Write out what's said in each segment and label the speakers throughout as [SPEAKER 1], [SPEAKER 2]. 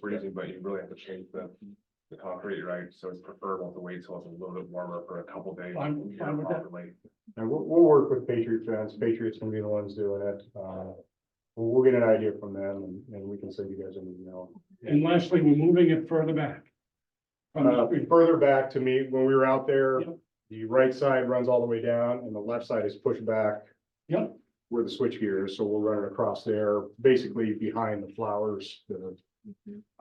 [SPEAKER 1] freezing, but you really have to change the, the concrete, right? So it's preferable to wait till it's a little bit warmer for a couple days.
[SPEAKER 2] I'm
[SPEAKER 1] and get
[SPEAKER 2] fine
[SPEAKER 1] it
[SPEAKER 2] with that.
[SPEAKER 1] properly.
[SPEAKER 3] And we'll, we'll work with Patriot Fence, Patriot's gonna be the ones doing it, uh, we'll, we'll get an idea from them and, and we can send you guys an email.
[SPEAKER 2] And lastly, we're moving it further back. From
[SPEAKER 3] Uh,
[SPEAKER 2] the street.
[SPEAKER 3] further back to me, when we were out there,
[SPEAKER 2] Yep.
[SPEAKER 3] the right side runs all the way down and the left side is pushed back.
[SPEAKER 2] Yep.
[SPEAKER 3] Where the switchgear is, so we'll run it across there, basically behind the flowers, the,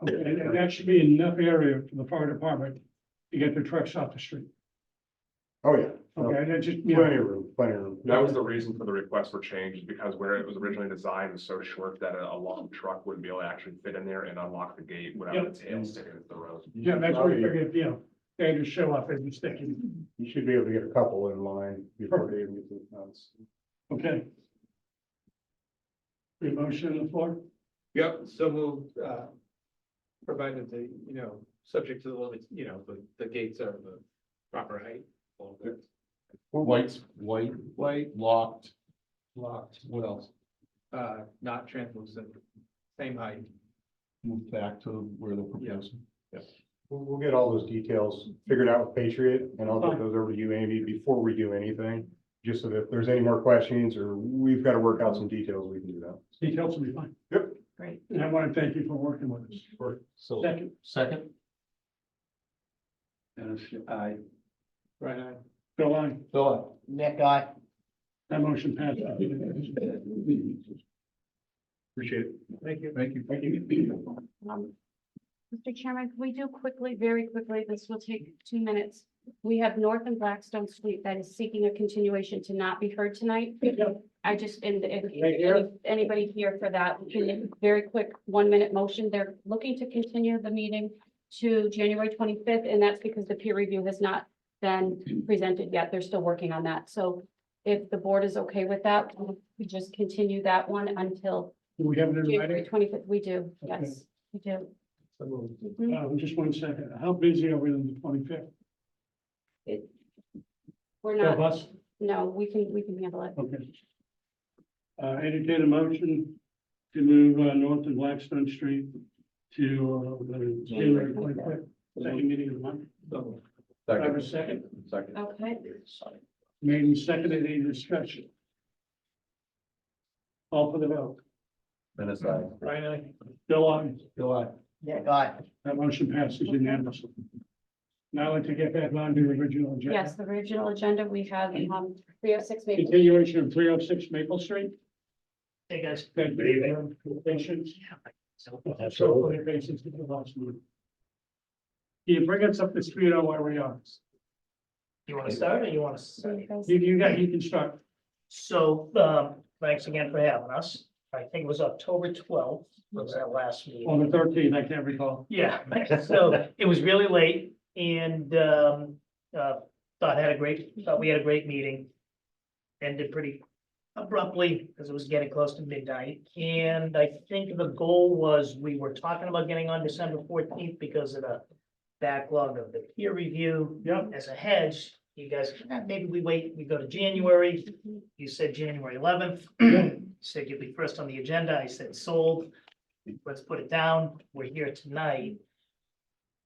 [SPEAKER 2] Okay, And and that should be enough area for the fire department to get their trucks off the street.
[SPEAKER 3] oh yeah.
[SPEAKER 2] Okay, and that just, you
[SPEAKER 3] Plenty
[SPEAKER 2] know,
[SPEAKER 3] of room, plenty of room.
[SPEAKER 1] That was the reason for the request for change, is because where it was originally designed was so short that a a long truck wouldn't be able to actually fit in there and unlock the gate without
[SPEAKER 2] Yep.
[SPEAKER 1] its tail sticking into the road.
[SPEAKER 2] Oh, yeah, that's what we figured, you know, they just show up and just stick it.
[SPEAKER 3] You should be able to get a couple in line before they even get to the fence.
[SPEAKER 2] Okay. Free motion on the floor?
[SPEAKER 4] Yep, so moved, uh, provided the, you know, subject to the limits, you know, the, the gates are the proper height. all that.
[SPEAKER 5] White's white,
[SPEAKER 4] White,
[SPEAKER 5] locked,
[SPEAKER 4] locked,
[SPEAKER 5] what else?
[SPEAKER 4] uh, not translucent, same height.
[SPEAKER 5] Move back to where they're proposing.
[SPEAKER 3] We'll, we'll get all those details figured out with Patriot and I'll
[SPEAKER 2] Fine.
[SPEAKER 3] get those over to you, Amy, before we do anything. Just so that if there's any more questions or we've got to work out some details, we can do that.
[SPEAKER 2] Details will be fine.
[SPEAKER 3] Yep.
[SPEAKER 6] Great.
[SPEAKER 2] And I want to thank you for working with us.
[SPEAKER 5] So,
[SPEAKER 2] Second,
[SPEAKER 5] second,
[SPEAKER 4] And I. Right, I.
[SPEAKER 2] Bill, I,
[SPEAKER 5] Bill,
[SPEAKER 6] Nick, I,
[SPEAKER 2] that motion passed.
[SPEAKER 4] Appreciate it. Thank you.
[SPEAKER 5] thank you.
[SPEAKER 2] Thank you.
[SPEAKER 7] Um, Mr. Chairman, can we do quickly, very quickly, this will take two minutes. We have North and Blackstone Street that is seeking a continuation to not be heard tonight. I just, and if
[SPEAKER 2] Right here?
[SPEAKER 7] if anybody here for that, we can, very quick, one minute motion, they're looking to continue the meeting to January twenty-fifth, and that's because the peer review has not been presented yet, they're still working on that, so if the board is okay with that, we just continue that one until
[SPEAKER 2] Do we have it in
[SPEAKER 7] January
[SPEAKER 2] writing?
[SPEAKER 7] twenty-fifth, we do,
[SPEAKER 2] Okay.
[SPEAKER 7] yes, we do. Mhm.
[SPEAKER 2] Um, just one second. How busy are we on the twenty-fifth?
[SPEAKER 7] We're
[SPEAKER 2] Of
[SPEAKER 7] not,
[SPEAKER 2] us?
[SPEAKER 7] no, we can, we can handle it.
[SPEAKER 2] Okay. Uh, entertain a motion to move, uh, north of Blackstone Street to, uh, the January twenty-fifth, second meeting of the month.
[SPEAKER 4] So,
[SPEAKER 2] Do I have a second?
[SPEAKER 5] Second.
[SPEAKER 7] Okay,
[SPEAKER 2] Made and seconded, any discussion? All for the vote.
[SPEAKER 5] Minutes, aye.
[SPEAKER 2] Brian, I. Bill, I.
[SPEAKER 5] Bill, aye.
[SPEAKER 6] Nick, I.
[SPEAKER 2] That motion passes unanimously. Now I'd like to get back on to the original agenda.
[SPEAKER 7] yes, the original agenda, we have, um, three oh six Maple.
[SPEAKER 2] Continuation of three oh six Maple Street.
[SPEAKER 8] Hey, guys.
[SPEAKER 2] Good evening. Patients. So, for the patients to the last meeting. Can you bring us up to speed on where we are?
[SPEAKER 8] You want to start or you want
[SPEAKER 7] So you
[SPEAKER 8] to?
[SPEAKER 7] guys-
[SPEAKER 2] You, you got, you can start.
[SPEAKER 8] So, um, thanks again for having us. I think it was October twelfth was that last meeting.
[SPEAKER 2] On the thirteenth, I can't recall.
[SPEAKER 8] Yeah, so it was really late and, um, uh, thought had a great, thought we had a great meeting. Ended pretty abruptly because it was getting close to midnight. And I think the goal was we were talking about getting on December fourteenth because of the backlog of the peer review.
[SPEAKER 2] Yep.
[SPEAKER 8] as a hedge, you guys, "Ah, maybe we wait, we go to January. You said January eleventh, said you'd be first on the agenda. I said sold. Let's put it down. We're here tonight.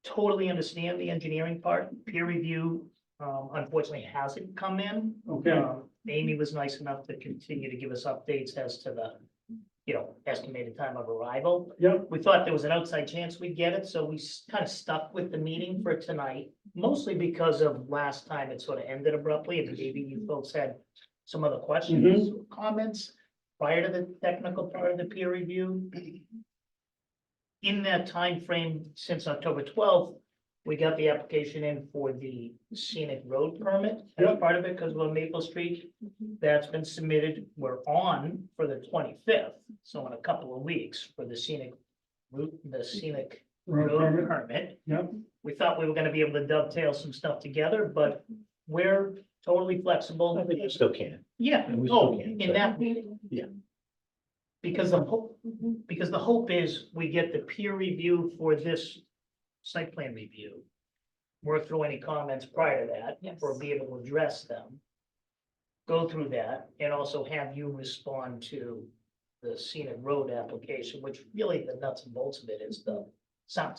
[SPEAKER 8] Totally understand the engineering part. Peer review, um, unfortunately hasn't come in.
[SPEAKER 2] Okay,
[SPEAKER 8] Um, Amy was nice enough to continue to give us updates as to the, you know, estimated time of arrival.
[SPEAKER 2] Yep.
[SPEAKER 8] We thought there was an outside chance we'd get it, so we kind of stuck with the meeting for tonight, mostly because of last time it sort of ended abruptly, and maybe you folks had some other
[SPEAKER 2] Mm-hmm.
[SPEAKER 8] questions, or comments prior to the technical part of the peer review. In that time frame since October twelfth, we got the application in for the scenic road permit as
[SPEAKER 2] Yep.
[SPEAKER 8] part of it, because we're on Maple Street. That's been submitted, we're on for the twenty-fifth, so in a couple of weeks for the scenic route, the scenic
[SPEAKER 2] road
[SPEAKER 8] road
[SPEAKER 2] permit.
[SPEAKER 8] permit.
[SPEAKER 2] Yep.
[SPEAKER 8] We thought we were gonna be able to dovetail some stuff together, but we're totally flexible.
[SPEAKER 5] Still can.
[SPEAKER 8] Yeah,
[SPEAKER 5] And we still
[SPEAKER 8] oh,
[SPEAKER 5] can't
[SPEAKER 8] in that,
[SPEAKER 5] Yeah.
[SPEAKER 8] because the hope, because the hope is we get the peer review for this site plan review. Work through any comments prior to that, or
[SPEAKER 7] Yes.
[SPEAKER 8] be able to address them. Go through that and also have you respond to the scenic road application, which really the nuts and bolts of it is the Sounds